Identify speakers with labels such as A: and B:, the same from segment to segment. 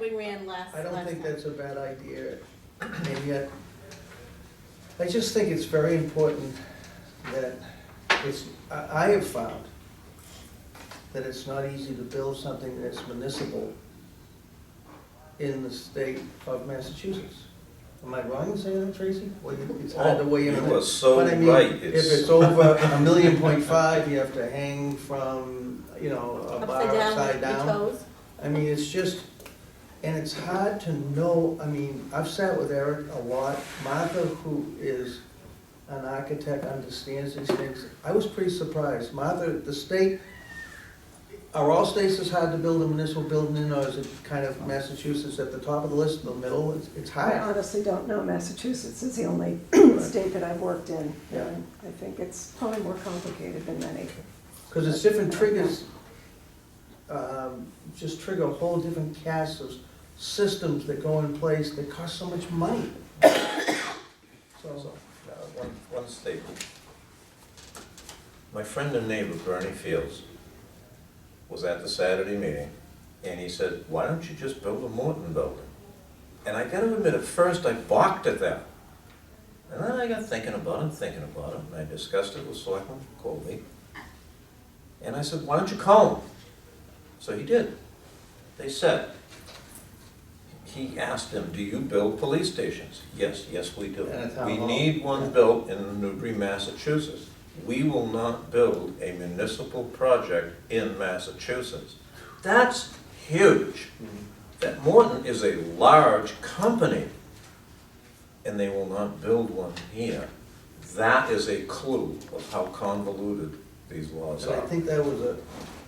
A: we ran last,
B: I
A: last
B: don't think
A: time.
B: that's a bad idea, and yet, I just think it's very important that it's, I, I have found that it's not easy to build something that's municipal in the state of Massachusetts. Am I wrong in saying that, Tracy? Well, you- it's hard to weigh in on
C: You
B: that.
C: are so
B: But I mean,
C: right.
B: If it's over a million point five, you have to hang from, you know, a bar
A: Upside down,
B: upside
A: with your
B: down.
A: toes.
B: I mean, it's just, and it's hard to know, I mean, I've sat with Eric a lot, Martha, who is an architect, understands these things, I was pretty surprised, Martha, the state, are all states as hard to build a municipal building in, or is it kind of Massachusetts at the top of the list, in the middle, it's, it's
D: I
B: high?
D: honestly don't know. Massachusetts is the only state that I've worked in.
B: Yeah.
D: and I think it's probably more complicated than many.
B: Because it's different triggers, um, just trigger a whole different cast of systems that go in place that cost so much money. So,
C: So, uh, One, one staple. My friend and neighbor Bernie Fields was at the Saturday meeting, and he said, why don't you just build a Morton building? And I gotta admit, at first I balked at that. And then I got thinking about it, thinking about it, and I discussed it with Selectman Colby. And I said, why don't you call him? So he did. They said, he asked them, do you build police stations? Yes, yes, we do.
B: And a town
C: We
B: hall.
C: need one built in Newbury, Massachusetts. We will not build a municipal project in Massachusetts. That's huge. That Morton is a large company, and they will not build one here. That is a clue of how convoluted these laws
B: And I
C: are.
B: think that was a,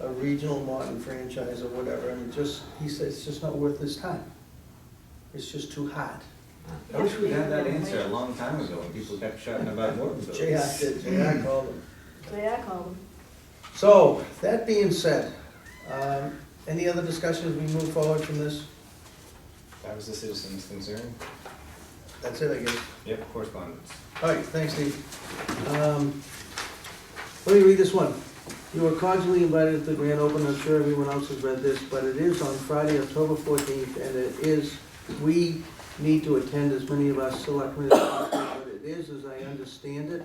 B: a regional Martin franchise or whatever, and it just, he said, it's just not worth his time. It's just too hot.
E: I wish we'd had that answer a long time ago when people kept shouting about Mortonville.
B: J I did, J I called him.
A: So yeah, I called him.
B: So, that being said, um, any other discussions we move forward from this?
E: That was the citizen's concern.
B: That's it, I guess.
E: Yep, correspondence.
B: All right, thanks, Steve. Um, Let me read this one. You are cordially invited to the grand opening, I'm sure everyone else has read this, but it is on Friday, October fourteenth, and it is, we need to attend as many of us selectmen as possible, but it is, as I understand it,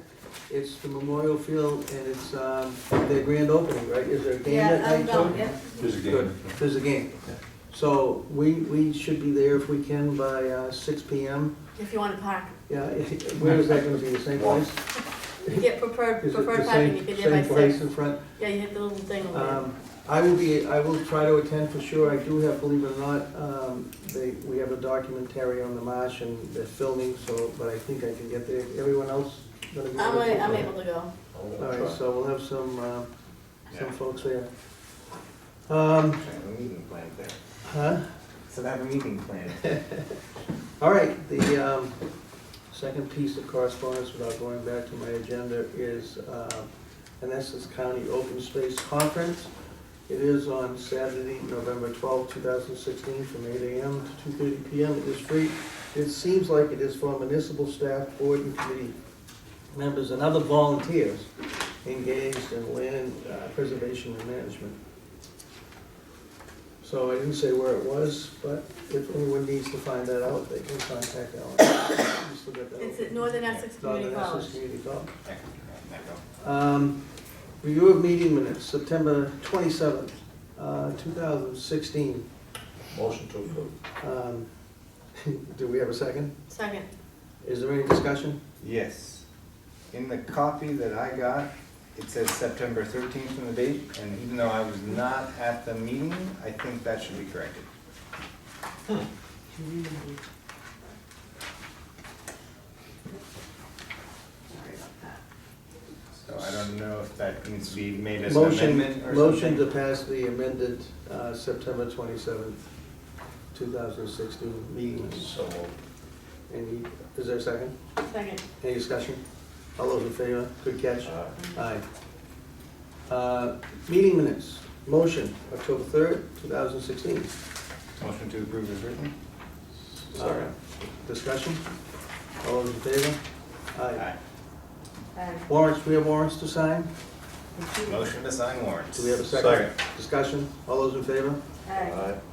B: it's the Memorial Field, and it's um, their grand opening, right? Is there a game
A: Yeah, um,
B: that
A: I'm
B: night?
A: going,
B: Tony?
A: yeah.
F: There's a
B: Good,
F: game.
B: there's a game. So we, we should be there if we can by uh, six P M.
A: If you wanna park,
B: Yeah, where is that gonna be, the same place?
A: you get preferred,
B: Is it
A: preferred
B: the
A: parking, you
B: same,
A: get there by
B: same
A: six.
B: place in front?
A: Yeah, you hit the little thing over there.
B: Um, I will be, I will try to attend for sure. I do have, believe it or not, um, they, we have a documentary on the marsh and they're filming, so, but I think I can get there. Everyone else gonna be
A: I'm,
B: there?
A: a- I'm able to go.
C: I'm
B: All
C: gonna
B: right,
C: try.
B: so we'll have some, uh, some
E: Yeah.
B: folks there. Um,
E: Should have a meeting planned there.
B: huh?
E: So have a meeting planned.
B: All right, the, um, second piece of correspondence without going back to my agenda is, uh, Menneson County Open Space Conference. It is on Saturday, November twelfth, two thousand sixteen, from eight AM to two thirty PM. It is free. It seems like it is for municipal staff, board and committee members and other volunteers engaged in land uh, preservation and management. So I didn't say where it was, but if anyone needs to find that out, they can contact Alan. We still got that
A: It's
B: open.
A: at Northern Essex Community
B: Northern Essex
A: College.
B: Community College.
E: Yeah, there you go.
B: Um, Review of meeting minutes, September 27th, uh, 2016.
C: Motion to approve.
B: Um, Do we have a second?
A: Second,
B: Is there any discussion?
E: Yes. In the copy that I got, it says September thirteenth in the date, and even though I was not at the meeting, I think that should be corrected. So I don't know if that needs to be made as an
B: Motion,
E: amendment or something.
B: motion to pass the amended uh, September 27th, 2016 meeting. minutes.
C: So moved.
B: Any, is there a second?
A: second.
B: Any discussion? All those in favor? Good catch.
C: Aye.
B: Aye. Uh, Meeting minutes, motion, October 3rd, 2016.
E: Motion to approve is written?
B: Sorry. Discussion? All those in favor? Aye.
A: Uh,
B: Warrants, we have warrants to sign?
E: Motion to sign warrants.
B: Do we have a second? Discussion? All those in favor?
A: uh,
C: Aye.